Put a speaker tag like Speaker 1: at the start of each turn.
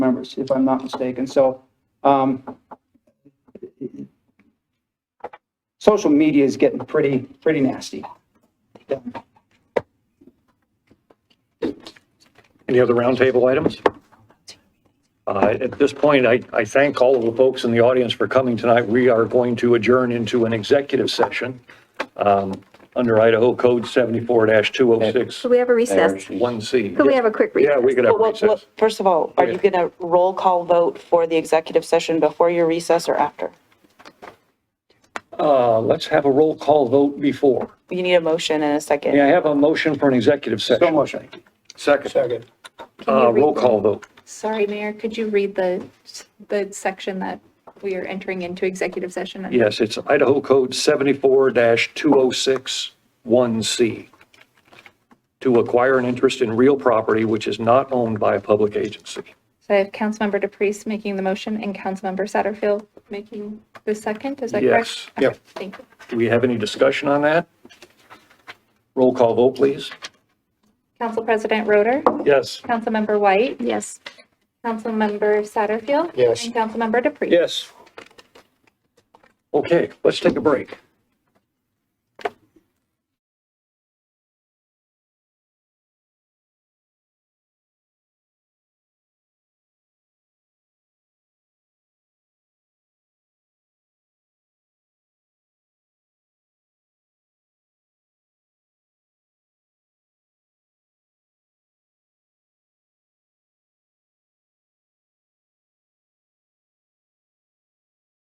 Speaker 1: members, if I'm not mistaken. So, um, social media is getting pretty, pretty nasty.
Speaker 2: Any other roundtable items? Uh, At this point, I I thank all of the folks in the audience for coming tonight. We are going to adjourn into an executive session um, under Idaho Code 74-206,
Speaker 3: Could we have a recess?
Speaker 2: 1C.
Speaker 3: Could we have a quick recess?
Speaker 2: Yeah, we could have
Speaker 4: Well, well,
Speaker 2: recess.
Speaker 4: First of all, are you
Speaker 2: Okay.
Speaker 4: going to roll call vote for the executive session before your recess or after?
Speaker 2: Uh, Let's have a roll call vote before.
Speaker 4: You need a motion and a second.
Speaker 2: May I have a motion for an executive session?
Speaker 1: So motion.
Speaker 2: Second.
Speaker 1: Second.
Speaker 2: Uh, Roll call vote.
Speaker 5: Sorry, Mayor, could you read the, the section that we are entering into executive session? under?
Speaker 2: Yes, it's Idaho Code 74-206-1C. To acquire an interest in real property which is not owned by a public agency.
Speaker 5: So I have Councilmember DePreez making the motion and Councilmember Satterfield making the second, is that
Speaker 2: Yes.
Speaker 5: correct?
Speaker 2: Yep.
Speaker 5: Thank you.
Speaker 2: Do we have any discussion on that? Roll call vote, please.
Speaker 5: Council President Roder,
Speaker 2: Yes.
Speaker 5: Councilmember White,
Speaker 3: Yes.
Speaker 5: Councilmember Satterfield.
Speaker 2: Yes.
Speaker 5: And Councilmember DePreez.
Speaker 2: Yes. Okay, let's take a break.